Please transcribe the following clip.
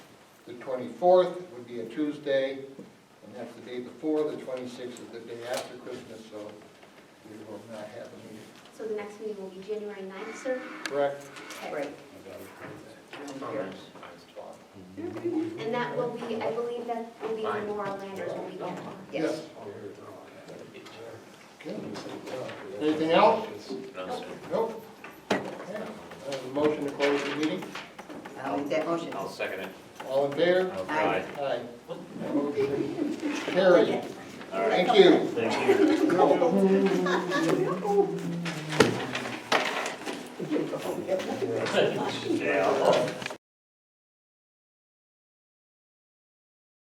the twenty-fourth would be a Tuesday, and that's the day before, the twenty-sixth is the day after Christmas, so we will not have a meeting, So the next meeting will be January 9th, sir? correct? Okay. Right. And that will be, I believe that will be Memorial Landers will be there. Yes. Okay. Anything else? No, sir. Nope. Okay. I have a motion to close the meeting, I'll make that motion. I'll second it. all in favor? Aye. Aye. Motion Carried. Thank you. Thank you. Yeah.